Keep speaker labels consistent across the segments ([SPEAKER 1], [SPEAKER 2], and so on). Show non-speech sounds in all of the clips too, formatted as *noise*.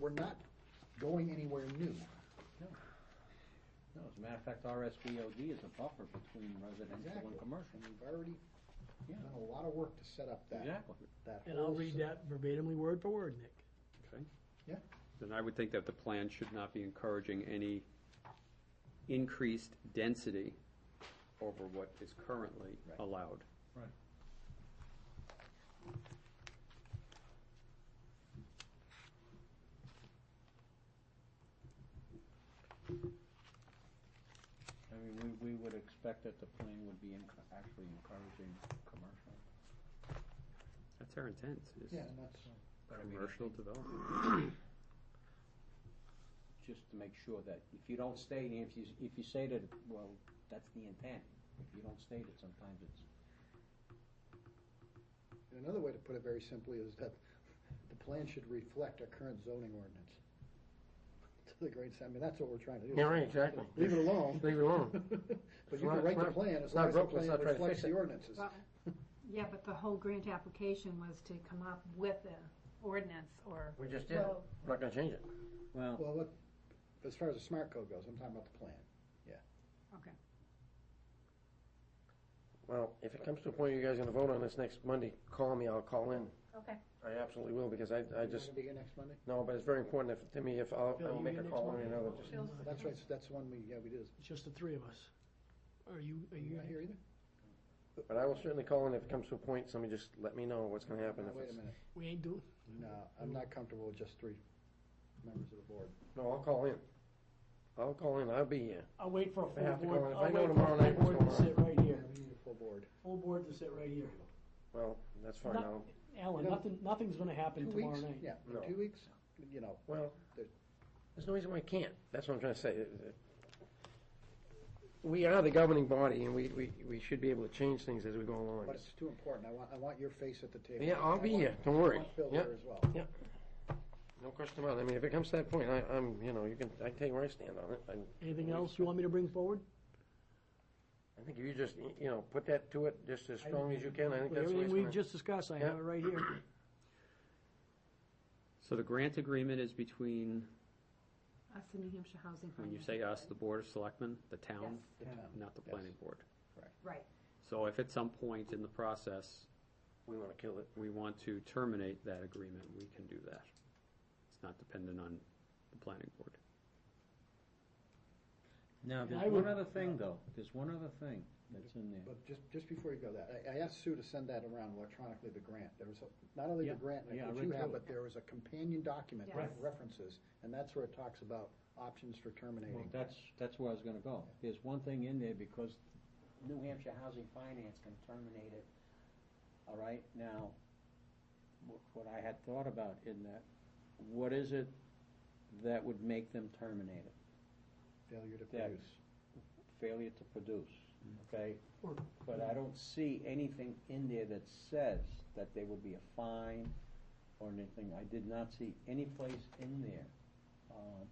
[SPEAKER 1] we're not going anywhere new.
[SPEAKER 2] No, as a matter of fact, RSVOD is a buffer between residential and commercial.
[SPEAKER 1] And we've already
[SPEAKER 2] Yeah.
[SPEAKER 1] done a lot of work to set up that,
[SPEAKER 2] Exactly.
[SPEAKER 1] that
[SPEAKER 3] And I'll
[SPEAKER 1] whole
[SPEAKER 3] read
[SPEAKER 1] system.
[SPEAKER 3] that verbatimly, word for word, Nick.
[SPEAKER 4] Okay.
[SPEAKER 1] Yeah.
[SPEAKER 4] Then I would think that the plan should not be encouraging any increased density over what is currently
[SPEAKER 1] Right.
[SPEAKER 4] allowed.
[SPEAKER 2] Right. I mean, we, we would expect that the plan would be enc- actually encouraging commercial.
[SPEAKER 4] That's our intent, is
[SPEAKER 1] Yeah, and that's,
[SPEAKER 2] But I mean, I
[SPEAKER 4] commercial
[SPEAKER 2] think
[SPEAKER 4] development.
[SPEAKER 2] Just to make sure that if you don't state, if you, if you say that, well, that's the intent. If you don't state it, sometimes it's
[SPEAKER 1] and another way to put it very simply is that the plan should reflect our current zoning ordinance. *laughs* To the great extent, I mean, that's what we're trying to do.
[SPEAKER 5] Yeah, right, exactly.
[SPEAKER 1] Leave it alone.
[SPEAKER 5] Leave it alone.
[SPEAKER 1] *laughs* But you can write the plan as
[SPEAKER 5] It's
[SPEAKER 1] long
[SPEAKER 5] not
[SPEAKER 1] as the
[SPEAKER 5] broke,
[SPEAKER 1] plan
[SPEAKER 5] let's not try to
[SPEAKER 1] reflects
[SPEAKER 5] fix it.
[SPEAKER 1] the ordinances.
[SPEAKER 6] Well, Yeah, but the whole grant application was to come up with an ordinance or.
[SPEAKER 5] We just did. it.
[SPEAKER 6] Well-
[SPEAKER 5] We're not gonna change it.
[SPEAKER 2] Well,
[SPEAKER 1] Well, look, as far as the smart code goes, I'm talking about the plan.
[SPEAKER 6] Okay.
[SPEAKER 5] Well, if it comes to a point you guys are gonna vote on this next Monday, call me, I'll call in.
[SPEAKER 6] Okay.
[SPEAKER 5] I absolutely will, because I, I
[SPEAKER 1] You're
[SPEAKER 5] just,
[SPEAKER 1] gonna be here next Monday?
[SPEAKER 5] no, but it's very important if, to me, if I'll,
[SPEAKER 3] Bill,
[SPEAKER 5] I'll
[SPEAKER 3] you
[SPEAKER 5] make
[SPEAKER 3] here
[SPEAKER 5] a
[SPEAKER 3] next
[SPEAKER 5] call
[SPEAKER 3] Monday?
[SPEAKER 5] and I'll just.
[SPEAKER 3] Oh,
[SPEAKER 6] Bill's-
[SPEAKER 1] That's right, so that's the one we, yeah, we did.
[SPEAKER 3] It's just the three of us. Are you, are
[SPEAKER 1] You
[SPEAKER 3] you
[SPEAKER 1] not here either?
[SPEAKER 5] But I will certainly call in if it comes to a point, somebody just let me know what's gonna happen
[SPEAKER 1] No,
[SPEAKER 5] if
[SPEAKER 1] Wait a
[SPEAKER 5] it's.
[SPEAKER 1] minute,
[SPEAKER 3] We ain't doing,
[SPEAKER 1] no, I'm not comfortable with just three members of the board.
[SPEAKER 5] No, I'll call in. I'll call in, I'll be here.
[SPEAKER 3] I'll wait for a
[SPEAKER 5] If I have to
[SPEAKER 3] full board,
[SPEAKER 5] go, if I
[SPEAKER 3] I'll
[SPEAKER 5] know
[SPEAKER 3] wait
[SPEAKER 5] tomorrow
[SPEAKER 3] for a
[SPEAKER 5] night
[SPEAKER 3] full
[SPEAKER 5] what's
[SPEAKER 3] board to
[SPEAKER 5] going
[SPEAKER 3] sit right
[SPEAKER 1] Yeah,
[SPEAKER 3] here.
[SPEAKER 1] we need a full board.
[SPEAKER 3] Full board to sit right here.
[SPEAKER 5] Well, that's fine,
[SPEAKER 3] Not-
[SPEAKER 5] I'll,
[SPEAKER 3] Alan,
[SPEAKER 1] No.
[SPEAKER 3] nothing, nothing's gonna happen
[SPEAKER 1] Two
[SPEAKER 3] tomorrow
[SPEAKER 1] weeks,
[SPEAKER 3] night.
[SPEAKER 1] yeah, in
[SPEAKER 5] No.
[SPEAKER 1] two weeks, you know,
[SPEAKER 5] well,
[SPEAKER 1] There-
[SPEAKER 5] there's no reason why I can't. That's what I'm trying to say. We are the governing body and we, we, we should be able to change things as we go along.
[SPEAKER 1] but it's too important. I want, I want your face at the table.
[SPEAKER 5] Yeah, I'll
[SPEAKER 1] I
[SPEAKER 5] be
[SPEAKER 1] want-
[SPEAKER 5] here, don't worry.
[SPEAKER 1] I want Phil
[SPEAKER 5] Yeah.
[SPEAKER 1] there as well.
[SPEAKER 5] No question about it. I mean, if it comes to that point, I, I'm, you know, you can, I can tell you where I stand on it. I,
[SPEAKER 3] Anything else you want me to bring forward?
[SPEAKER 5] I think if you just, you know, put that to it just as strong as you can, I think
[SPEAKER 3] With
[SPEAKER 5] that's the way it's
[SPEAKER 3] Everything we
[SPEAKER 5] gonna.
[SPEAKER 3] just discussed, I have
[SPEAKER 5] Yeah.
[SPEAKER 3] it right here.
[SPEAKER 4] So the grant agreement is between,
[SPEAKER 6] Us in New Hampshire Housing.
[SPEAKER 4] when you
[SPEAKER 6] Finance
[SPEAKER 4] say us, the
[SPEAKER 6] Authority.
[SPEAKER 4] Board of Selectmen, the town,
[SPEAKER 6] Yes,
[SPEAKER 1] The town.
[SPEAKER 4] not the
[SPEAKER 1] Yes.
[SPEAKER 4] planning board.
[SPEAKER 6] right.
[SPEAKER 4] So if at some point in the process,
[SPEAKER 5] We wanna kill it.
[SPEAKER 4] we want to terminate that agreement, we can do that. It's not dependent on the planning board.
[SPEAKER 2] Now,
[SPEAKER 3] I
[SPEAKER 2] there's
[SPEAKER 3] would-
[SPEAKER 2] one other thing, though. There's one other thing that's in there.
[SPEAKER 1] But just, just before you go that, I, I asked Sue to send that around electronically, the grant. There was, a- not only the
[SPEAKER 2] Yeah,
[SPEAKER 1] grant
[SPEAKER 2] yeah, I
[SPEAKER 1] that
[SPEAKER 2] read
[SPEAKER 1] you
[SPEAKER 2] through
[SPEAKER 1] have,
[SPEAKER 2] it.
[SPEAKER 1] but there was a companion document that
[SPEAKER 6] Yes.
[SPEAKER 1] references, and that's where it talks about options for
[SPEAKER 2] Well,
[SPEAKER 1] terminating.
[SPEAKER 2] that's, that's where I was gonna go. There's one thing in there because New Hampshire Housing Finance can terminate it. All right, now, what, what I had thought about in that, what is it that would make them terminate it?
[SPEAKER 1] Failure to
[SPEAKER 2] Yeah.
[SPEAKER 1] produce.
[SPEAKER 2] Failure to produce, okay?
[SPEAKER 3] Or-
[SPEAKER 2] But I don't see anything in there that says that there will be a fine or anything. I did not see any place in there. Um,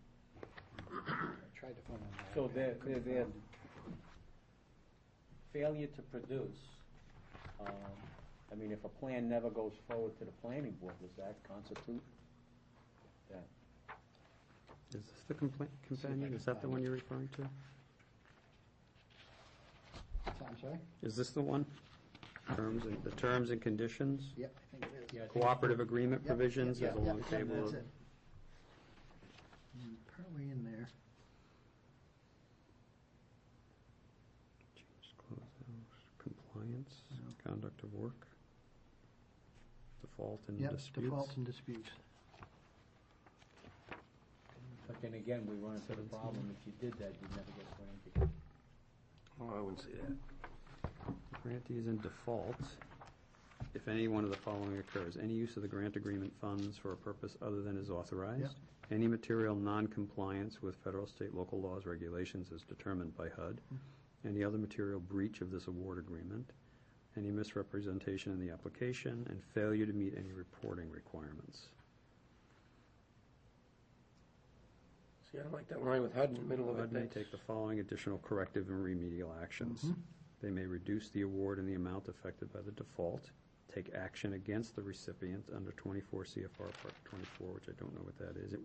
[SPEAKER 1] I tried to find that.
[SPEAKER 2] So they're, they're, they're failure to produce, um, I mean, if a plan never goes forward to the planning board, does that constitute that?
[SPEAKER 4] Is this the compla- companion? Is that the one you're referring to?
[SPEAKER 1] I'm sorry?
[SPEAKER 4] Is this the one? Terms and, the terms and conditions,
[SPEAKER 1] Yep, I think it is.
[SPEAKER 2] Yeah, I think-
[SPEAKER 4] cooperative agreement
[SPEAKER 1] Yep,
[SPEAKER 4] provisions,
[SPEAKER 1] yep,
[SPEAKER 4] there's a
[SPEAKER 1] yep,
[SPEAKER 4] long
[SPEAKER 1] yep,
[SPEAKER 4] table
[SPEAKER 1] that's
[SPEAKER 4] of.
[SPEAKER 1] it. Hmm, Probably in there.
[SPEAKER 4] Change clause, hours, Compliance, conduct of work, default and
[SPEAKER 1] Yep,
[SPEAKER 4] disputes.
[SPEAKER 1] defaults and Mm, disputes.
[SPEAKER 2] But then again, we run into the problem, if you did that, you'd never get granted.
[SPEAKER 5] Oh, I wouldn't say that.
[SPEAKER 4] Grantee is in default if any one of the following occurs. Any use of the grant agreement funds for a purpose other than is authorized. Any material non-compliance with federal, state, local laws, regulations as determined by HUD. Any other material breach of this award agreement. Any misrepresentation in the application and failure to meet any reporting requirements.
[SPEAKER 5] See, I don't like that line with HUD in the middle of it.
[SPEAKER 4] HUD Uh, may
[SPEAKER 5] That's-
[SPEAKER 4] take the following additional corrective and remedial actions.
[SPEAKER 5] Mm-hmm.
[SPEAKER 4] They may reduce the award and the amount affected by the default, take action against the recipient under 24 CFR Part 24, which I don't know what that is,